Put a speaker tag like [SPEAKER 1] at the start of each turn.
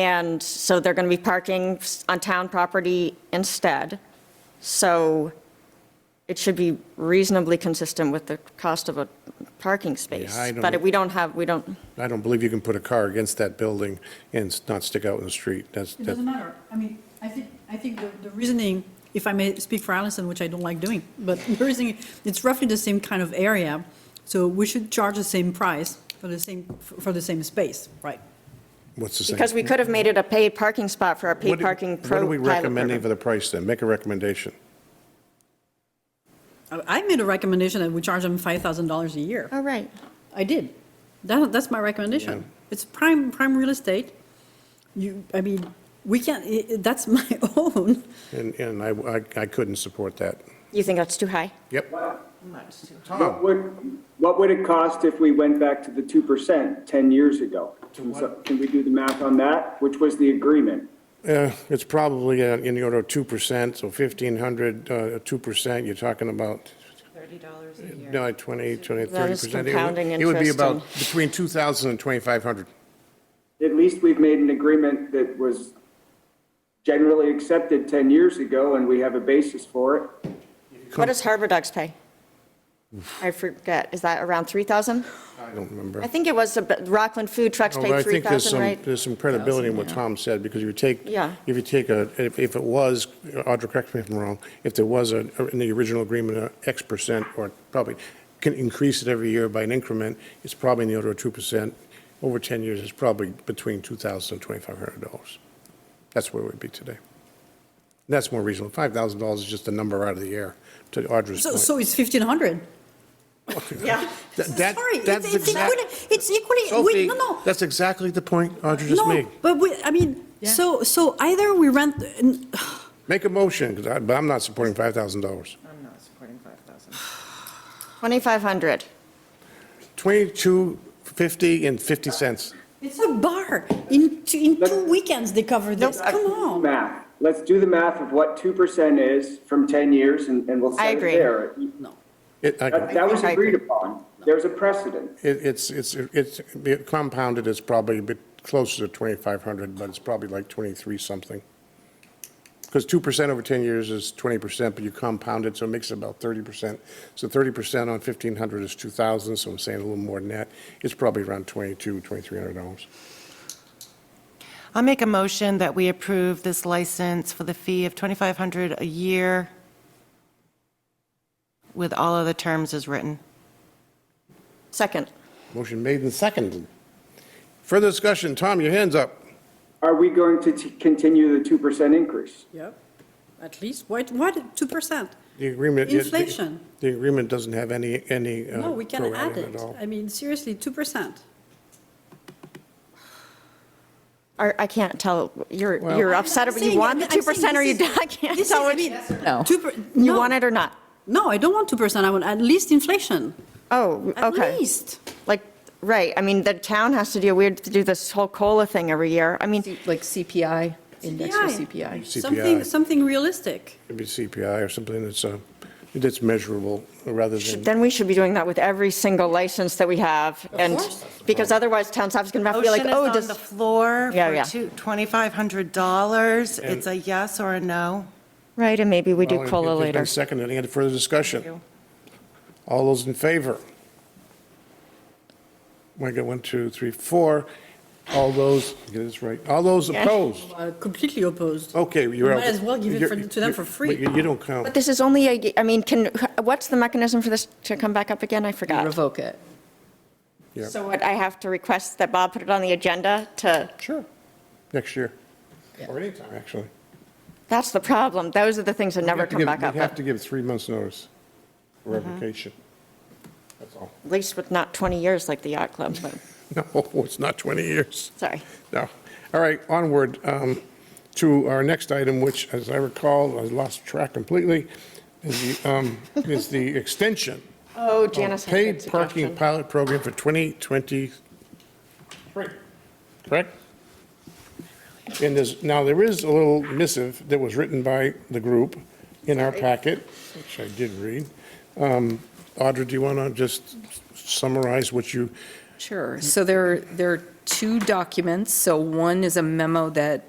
[SPEAKER 1] And so they're going to be parking on town property instead. So it should be reasonably consistent with the cost of a parking space.
[SPEAKER 2] Yeah, I don't-
[SPEAKER 1] But we don't have, we don't,
[SPEAKER 2] I don't believe you can put a car against that building and s- not stick out in the street. That's,
[SPEAKER 3] It doesn't
[SPEAKER 2] that-
[SPEAKER 3] matter. I mean, I think, I think the- the reasoning, if I may speak for Allison, which I don't like doing, but the reasoning, it's roughly the same kind of area, so we should charge the same price for the same, for the same space, right?
[SPEAKER 2] what's the same?
[SPEAKER 1] because we could have made it a paid parking spot for our
[SPEAKER 2] What
[SPEAKER 1] paid
[SPEAKER 2] do-
[SPEAKER 1] parking pro-
[SPEAKER 2] What are we
[SPEAKER 1] pilot
[SPEAKER 2] recommending
[SPEAKER 1] program.
[SPEAKER 2] for the price then? Make a recommendation.
[SPEAKER 3] I I made a recommendation that we charge them $5,000 a year.
[SPEAKER 1] Oh, right.
[SPEAKER 3] I did. That, that's my recommendation. It's prime, prime real estate. You, I mean, we can't, i- i- that's my own.
[SPEAKER 2] And, and I, I- I couldn't support that.
[SPEAKER 1] You think that's too high?
[SPEAKER 2] Yep.
[SPEAKER 4] What
[SPEAKER 2] Tom,
[SPEAKER 4] would, what would it cost if we went back to the 2% 10 years ago? Can so- can we do the math on that, which was the agreement?
[SPEAKER 2] uh, it's probably uh, in the order of 2%, so 1,500, uh, 2%, you're talking about,
[SPEAKER 5] Thirty dollars a year.
[SPEAKER 2] no, 20, 20, 30%.
[SPEAKER 1] That is
[SPEAKER 2] It would-
[SPEAKER 1] compounding
[SPEAKER 2] It would be
[SPEAKER 1] interest
[SPEAKER 2] about
[SPEAKER 1] and-
[SPEAKER 2] between 2,000 and 2,500.
[SPEAKER 4] At least we've made an agreement that was generally accepted 10 years ago, and we have a basis for it.
[SPEAKER 1] What does Harbor Dogs pay? I forget, is that around 3,000?
[SPEAKER 2] I don't remember.
[SPEAKER 1] I think it was, a bit- Rockland Food Trucks
[SPEAKER 2] Well,
[SPEAKER 1] paid
[SPEAKER 2] Oh, I think
[SPEAKER 1] 3,000,
[SPEAKER 2] there's some,
[SPEAKER 1] right?
[SPEAKER 2] there's some credibility in what Tom said, because you take,
[SPEAKER 1] Yeah.
[SPEAKER 2] if you take a, if if it was, Audra, correct me if I'm wrong, if there was a, in the original agreement, a X percent, or probably can increase it every year by an increment, it's probably in the order of 2%. Over 10 years, it's probably between $2,000 and $2,500. That's where we'd be today. That's more reasonable. $5,000 is just a number out of the air, to Audra's
[SPEAKER 3] So,
[SPEAKER 2] point.
[SPEAKER 3] so it's 1,500.
[SPEAKER 1] Yeah.
[SPEAKER 2] Th- that-
[SPEAKER 3] Sorry,
[SPEAKER 2] that's
[SPEAKER 3] it's- it's
[SPEAKER 2] exact-
[SPEAKER 3] equally, it's equally,
[SPEAKER 2] Sophie,
[SPEAKER 3] we, no, no.
[SPEAKER 2] that's exactly the point Audra just made.
[SPEAKER 3] No, but we, I mean, so, so either we rent, n-
[SPEAKER 2] Make a motion, 'cause I- but I'm not supporting $5,000.
[SPEAKER 5] I'm not supporting five thousand.
[SPEAKER 1] 2,500.
[SPEAKER 2] 22.50 and 50 cents.
[SPEAKER 3] it's a bar, in, two- in two weekends they cover this,
[SPEAKER 1] Nope.
[SPEAKER 3] come on.
[SPEAKER 4] Math. Let's do the math of what 2% is from 10 years, and, and we'll
[SPEAKER 1] I
[SPEAKER 4] set it
[SPEAKER 1] agree.
[SPEAKER 4] there.
[SPEAKER 2] It, I
[SPEAKER 4] That,
[SPEAKER 2] can-
[SPEAKER 4] that was
[SPEAKER 1] I agree.
[SPEAKER 4] agreed upon. There's a precedent.
[SPEAKER 2] it- it's, it's, it's it compounded, it's probably a bit closer to 2,500, but it's probably like 23 something. Because 2% over 10 years is 20%, but you compound it, so it makes it about 30%. So 30% on 1,500 is 2,000, so I'm saying a little more than that. It's probably around 22, $2,300.
[SPEAKER 5] I'll make a motion that we approve this license for the fee of twenty-five hundred a year with all other terms as written.
[SPEAKER 1] Second.
[SPEAKER 2] Motion made and seconded. Further discussion, Tom, your hand's up.
[SPEAKER 4] Are we going to t- continue the 2% increase?
[SPEAKER 3] Yep, at least, what, what, 2%?
[SPEAKER 2] The agreement. the- the-
[SPEAKER 3] Inflation.
[SPEAKER 2] The agreement doesn't have any, any. uh,
[SPEAKER 3] No, we can
[SPEAKER 2] prorating
[SPEAKER 3] add
[SPEAKER 2] at
[SPEAKER 3] it,
[SPEAKER 2] all.
[SPEAKER 3] I mean, seriously, 2%.
[SPEAKER 1] Or I can't tell, you're,
[SPEAKER 2] Well-
[SPEAKER 1] you're upset,
[SPEAKER 3] I'm
[SPEAKER 1] but you
[SPEAKER 3] saying-
[SPEAKER 1] want the
[SPEAKER 3] I'm saying
[SPEAKER 1] 2% or you
[SPEAKER 3] this is-
[SPEAKER 1] don't, I can't
[SPEAKER 3] this is-
[SPEAKER 1] tell
[SPEAKER 3] I
[SPEAKER 1] what
[SPEAKER 3] mean,
[SPEAKER 1] you,
[SPEAKER 5] No.
[SPEAKER 3] two per-
[SPEAKER 1] you
[SPEAKER 3] no.
[SPEAKER 1] want it or not?
[SPEAKER 3] No, I don't want 2%, I want at least inflation,
[SPEAKER 1] Oh,
[SPEAKER 3] at
[SPEAKER 1] okay.
[SPEAKER 3] least.
[SPEAKER 1] Like, right, I mean, the town has to do, we have to do this whole COLA thing every year. I mean,
[SPEAKER 6] Like CPI, index or
[SPEAKER 3] CPI.
[SPEAKER 6] CPI.
[SPEAKER 2] CPI.
[SPEAKER 3] Something, something realistic.
[SPEAKER 2] It'd be CPI or something that's, uh, that's measurable rather than,
[SPEAKER 1] then we should be doing that with every single license that we have. And
[SPEAKER 3] course. Oh.
[SPEAKER 1] because otherwise town staff's going to have to be like,
[SPEAKER 5] Motion is
[SPEAKER 1] oh,
[SPEAKER 5] on
[SPEAKER 1] this,
[SPEAKER 5] the floor
[SPEAKER 1] Yeah, yeah.
[SPEAKER 5] for two- $2,500. It's a yes or a no.
[SPEAKER 1] right, and maybe we do
[SPEAKER 2] Well, it-
[SPEAKER 1] COLA
[SPEAKER 2] it's been
[SPEAKER 1] later.
[SPEAKER 2] Seconded, any other further discussion? All those in favor? We got one, two, three, four. All those, get this right, all those opposed?
[SPEAKER 3] Uh, Completely opposed.
[SPEAKER 2] Okay, you're out.
[SPEAKER 3] Might as well give it for-
[SPEAKER 2] You're-
[SPEAKER 3] to them for free.
[SPEAKER 2] but You you don't count.
[SPEAKER 1] But this is only, a I mean, can, what's the mechanism for this to come back up again? I forgot.
[SPEAKER 6] Revoke it.
[SPEAKER 2] Yeah.
[SPEAKER 1] So what, I have to request that Bob put it on the agenda to,
[SPEAKER 2] Sure, next year. Or anytime, actually.
[SPEAKER 1] that's the problem. Those are the things that
[SPEAKER 2] We'd
[SPEAKER 1] never
[SPEAKER 2] have to
[SPEAKER 1] come
[SPEAKER 2] give-
[SPEAKER 1] back up. Mm-hmm.
[SPEAKER 2] We'd have to give three months' notice for revocation. That's all.
[SPEAKER 1] at least with not 20 years like the yacht club, but,
[SPEAKER 2] No, it's not 20 years.
[SPEAKER 1] sorry.
[SPEAKER 2] No. All right, onward um, to our next item, which, as I recall, I lost track completely, is the, um, is the extension
[SPEAKER 1] Oh,
[SPEAKER 2] of
[SPEAKER 1] Janice. had a good
[SPEAKER 2] paid parking
[SPEAKER 1] suggestion.
[SPEAKER 2] pilot program for 2023, correct? And there's, now, there is a little missive that was written by the group in our packet, which I did read. Um, Audra, do you want to just summarize what you,
[SPEAKER 6] Sure. So there, there are two documents. So one is a memo that